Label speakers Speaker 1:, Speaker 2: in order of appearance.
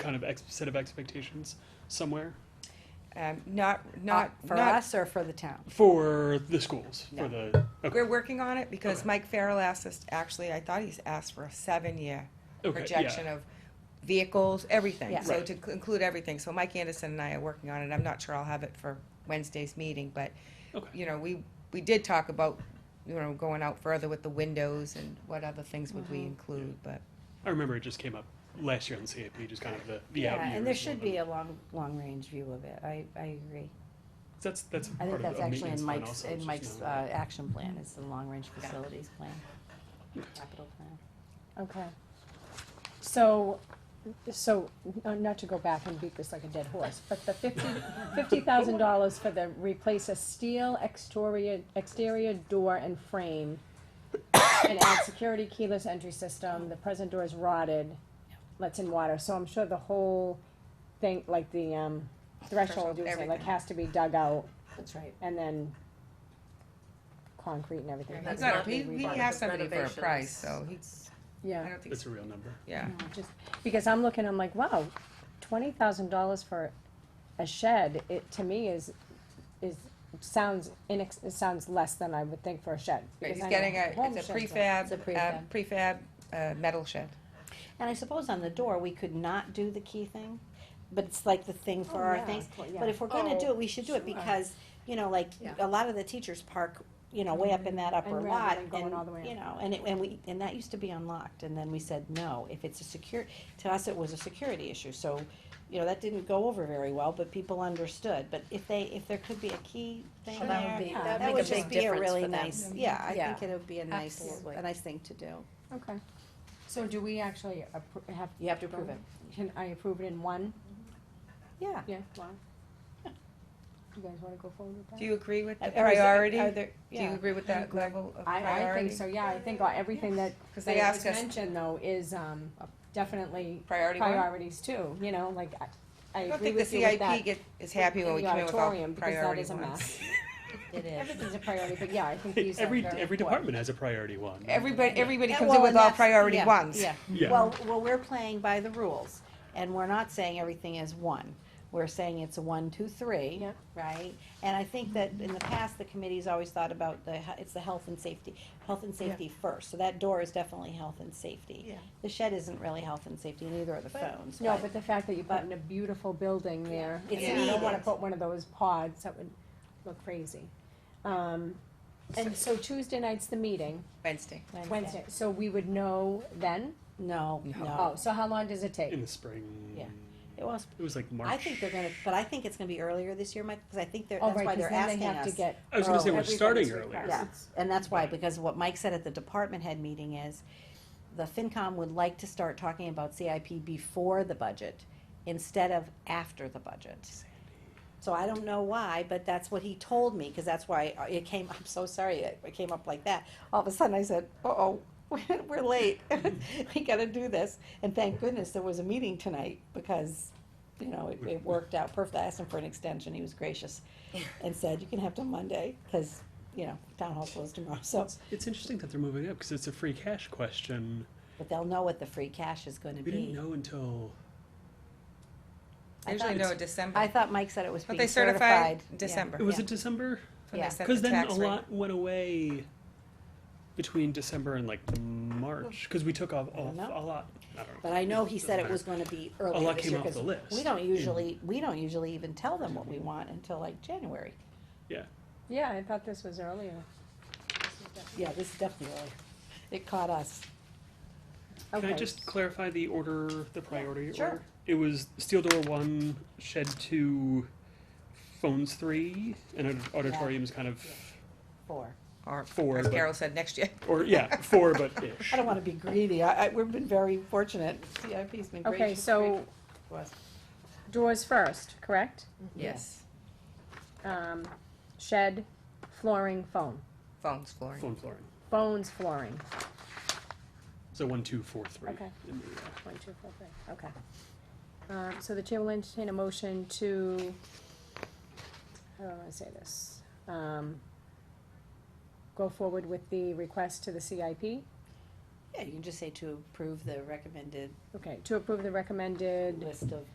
Speaker 1: kind of ex- set of expectations somewhere
Speaker 2: Um, not,
Speaker 1: Uh,
Speaker 3: Not
Speaker 2: not,
Speaker 3: for
Speaker 2: not,
Speaker 3: us or for the town?
Speaker 1: for the schools for
Speaker 3: No.
Speaker 1: the okay,
Speaker 2: we're working on it because
Speaker 1: Okay.
Speaker 2: Mike Farrell asked us, actually, I thought he's asked for a seven-year
Speaker 1: okay,
Speaker 2: projection
Speaker 1: yeah.
Speaker 2: of vehicles, everything.
Speaker 3: Yeah.
Speaker 2: So
Speaker 1: Right.
Speaker 2: to c- include everything. So Mike Anderson and I are working on it. I'm not sure I'll have it for Wednesday's meeting, but,
Speaker 1: Okay.
Speaker 2: you know, we, we did talk about, you know, going out further with the windows and what other things would we
Speaker 1: Mm-hmm.
Speaker 2: include, but.
Speaker 1: I remember it just came up last year on CAP, just kind of the, the out
Speaker 3: Yeah, and there
Speaker 1: years
Speaker 3: should
Speaker 1: of-
Speaker 3: be a long, long-range view of it. I, I agree.
Speaker 1: That's that's. part
Speaker 3: I think
Speaker 1: of
Speaker 3: that's
Speaker 1: the
Speaker 3: actually
Speaker 1: maintenance
Speaker 3: in
Speaker 1: plan
Speaker 3: Mike's,
Speaker 1: also, it's
Speaker 3: in
Speaker 1: just
Speaker 3: Mike's,
Speaker 1: not-
Speaker 3: uh, action plan, is the long-range facilities plan, capital plan.
Speaker 4: Okay. So, so, uh, not to go back and beat this like a dead horse, but the fifty, fifty thousand dollars for the, replace a steel exterior, exterior door and frame and add security keyless entry system, the present door is rotted, lets in water, so I'm sure the whole thing, like the, um, threshold,
Speaker 2: Threshold,
Speaker 4: you would say, like,
Speaker 2: everything.
Speaker 4: has to be dug out
Speaker 3: That's right.
Speaker 4: and then concrete and everything.
Speaker 5: Yeah, that's
Speaker 2: No,
Speaker 5: not
Speaker 2: he,
Speaker 5: being
Speaker 2: he
Speaker 5: rebuilt.
Speaker 2: asked somebody for a
Speaker 5: Renovations.
Speaker 2: price, so he,
Speaker 4: Yeah.
Speaker 2: I don't think,
Speaker 1: That's a real number.
Speaker 2: yeah.
Speaker 4: No, just, because I'm looking, I'm like, wow, twenty thousand dollars for a shed, it, to me, is, is, sounds inex, it sounds less than I would think for a shed.
Speaker 2: Right,
Speaker 4: because
Speaker 2: He's
Speaker 4: I know
Speaker 2: getting a,
Speaker 4: home
Speaker 2: it's
Speaker 4: sheds
Speaker 2: a
Speaker 4: are-
Speaker 2: prefab,
Speaker 3: It's a
Speaker 2: uh,
Speaker 3: prefab.
Speaker 2: prefab, uh, metal shed.
Speaker 3: And I suppose on the door, we could not do the key thing, but it's like the thing for
Speaker 4: Oh,
Speaker 3: our
Speaker 4: yeah,
Speaker 3: things.
Speaker 4: well, yeah.
Speaker 3: But if we're gonna do
Speaker 5: Oh,
Speaker 3: it, we should do it
Speaker 5: sure.
Speaker 3: because, you know, like,
Speaker 5: Yeah.
Speaker 3: a lot of the teachers park, you know, way up in that upper
Speaker 4: rather
Speaker 3: lot.
Speaker 4: than going all the way
Speaker 3: and, You
Speaker 4: up.
Speaker 3: know, and it, and we, and that used to be unlocked, and then we said, no, if it's a secure, to us, it was a security issue, so, you know, that didn't go over very well, but people understood, but if they, if there could be a key thing
Speaker 5: Sure.
Speaker 3: there,
Speaker 5: That would be- that'd
Speaker 3: that
Speaker 5: make
Speaker 3: would
Speaker 5: a
Speaker 3: just
Speaker 5: big
Speaker 3: be a
Speaker 5: difference
Speaker 3: really
Speaker 5: for them.
Speaker 3: nice, yeah, I
Speaker 5: Yeah.
Speaker 3: think it would be a nice,
Speaker 5: Absolutely.
Speaker 3: a nice thing to do.
Speaker 4: Okay, so do we actually appro- have?
Speaker 3: You have to approve it.
Speaker 4: Can I approve it in one?
Speaker 3: Yeah.
Speaker 4: Yeah, one. You guys wanna go forward with that?
Speaker 2: Do you agree with
Speaker 3: Are-
Speaker 2: the
Speaker 3: are there-
Speaker 2: priority?
Speaker 3: are there-
Speaker 2: Do you
Speaker 3: yeah.
Speaker 2: agree with that level of priority?
Speaker 4: I, I think so, yeah, I think everything that,
Speaker 2: Because
Speaker 4: that
Speaker 2: they
Speaker 4: was
Speaker 2: asked us,
Speaker 4: mentioned though is, um, definitely
Speaker 2: priority one?
Speaker 4: priorities too, you know, like, I, I
Speaker 2: I don't
Speaker 4: agree
Speaker 2: think the
Speaker 4: with you with that.
Speaker 2: CIP get, is happy when we
Speaker 4: in the
Speaker 2: come in with all
Speaker 4: auditorium, because that
Speaker 2: priority
Speaker 4: is a
Speaker 2: ones.
Speaker 3: It is.
Speaker 4: Everything's a priority, but yeah, I think these are
Speaker 1: Every
Speaker 4: very
Speaker 1: every
Speaker 4: important.
Speaker 1: department has a priority one.
Speaker 2: Everybody, everybody
Speaker 3: Yeah,
Speaker 2: comes
Speaker 3: well,
Speaker 2: in with
Speaker 3: and
Speaker 2: all
Speaker 3: that's-
Speaker 2: priority
Speaker 3: yeah,
Speaker 2: ones.
Speaker 3: Yeah.
Speaker 1: Yeah.
Speaker 3: Well, well, we're playing by the rules, and we're not saying everything is one. We're saying it's a one, two, three,
Speaker 4: Yep.
Speaker 3: right? And I think that in the past, the committee's always thought about the, he- it's the health and safety, health and safety first. So that door is definitely health and safety.
Speaker 2: Yeah.
Speaker 3: The shed isn't really health and safety, neither are the phones.
Speaker 4: No, but the fact that you put in a beautiful building there, and
Speaker 3: It's
Speaker 4: you don't wanna
Speaker 3: needed.
Speaker 4: put one of those pods, that would look crazy. Um, and so Tuesday night's the meeting,
Speaker 2: Wednesday.
Speaker 4: Wednesday, so we would know then?
Speaker 3: No,
Speaker 2: No.
Speaker 4: Oh,
Speaker 3: no.
Speaker 4: so how long does it take?
Speaker 1: in the spring.
Speaker 3: Yeah. It was,
Speaker 1: It was like March.
Speaker 3: I think they're gonna, but I think it's gonna be earlier this year, Mike, because I think they're,
Speaker 4: Oh,
Speaker 3: that's
Speaker 4: right,
Speaker 3: why
Speaker 4: 'cause
Speaker 3: they're
Speaker 4: then
Speaker 3: asking
Speaker 4: they have to
Speaker 3: us.
Speaker 4: get.
Speaker 1: I was gonna say we're
Speaker 4: everybody's
Speaker 1: starting
Speaker 4: request.
Speaker 1: earlier.
Speaker 3: Yeah, and that's why,
Speaker 1: Right.
Speaker 3: because what Mike said at the department head meeting is, the FinCom would like to start talking about CIP before the budget, instead of after the budget. So I don't know why, but that's what he told me, cause that's why it came, I'm so sorry, it, it came up like that. All of a sudden I said, uh-oh, we're late, we gotta do this, and thank goodness there was a meeting tonight, because, you know, it, it worked out perfect, I asked him for an extension, he was gracious, and said, you can have till Monday, cause, you know, town hall closed tomorrow, so,
Speaker 1: It's interesting that they're moving it up because it's a free cash question.
Speaker 3: but they'll know what the free cash is gonna
Speaker 1: We didn't
Speaker 3: be.
Speaker 1: know until
Speaker 2: I usually
Speaker 1: It's-
Speaker 2: know December.
Speaker 3: I thought Mike said it was
Speaker 2: But
Speaker 3: being
Speaker 2: they certified
Speaker 3: certified. Yeah.
Speaker 2: December.
Speaker 1: it was
Speaker 3: Yeah.
Speaker 1: it December
Speaker 2: That's when
Speaker 3: yeah.
Speaker 2: they set
Speaker 1: because
Speaker 2: the
Speaker 1: then a
Speaker 2: tax rate.
Speaker 1: lot went away between December and like March because we took off, off
Speaker 3: know.
Speaker 1: a lot. I don't know.
Speaker 3: But I know he
Speaker 1: Doesn't
Speaker 3: said it
Speaker 1: matter.
Speaker 3: was gonna be
Speaker 1: A
Speaker 3: early
Speaker 1: lot
Speaker 3: this
Speaker 1: came
Speaker 3: year,
Speaker 1: off the
Speaker 3: 'cause
Speaker 1: list
Speaker 3: we don't
Speaker 1: in-
Speaker 3: usually, we don't usually even tell them what we want until like January.
Speaker 1: Yeah.
Speaker 4: Yeah, I thought this was earlier.
Speaker 3: Yeah, this is definitely early. It caught us.
Speaker 1: Can I
Speaker 4: Okay.
Speaker 1: just clarify the order, the priority
Speaker 3: sure.
Speaker 1: order? It was steel door one, shed two, phones three, and aud- auditoriums kind of,
Speaker 3: Four.
Speaker 2: Or,
Speaker 1: Four,
Speaker 2: as
Speaker 1: but-
Speaker 2: Carol said, next year.
Speaker 1: or yeah, four but ish.
Speaker 3: I don't wanna be greedy. I, I, we've been very fortunate. CIP's been gracious.
Speaker 4: Okay, so
Speaker 3: to us.
Speaker 4: doors first, correct?
Speaker 2: Yes.
Speaker 4: Um, shed, flooring, foam,
Speaker 2: Phones, flooring.
Speaker 1: Phone flooring.
Speaker 4: bones, flooring,
Speaker 1: So one, two, four, three.
Speaker 4: Okay.
Speaker 1: in the, uh,
Speaker 4: one, two, four, three, okay. Um, so the chair will entertain a motion to, how do I wanna say this? Um, go forward with the request to the CIP
Speaker 3: Yeah, you can just say to approve the recommended
Speaker 4: Okay, to approve the recommended
Speaker 3: list of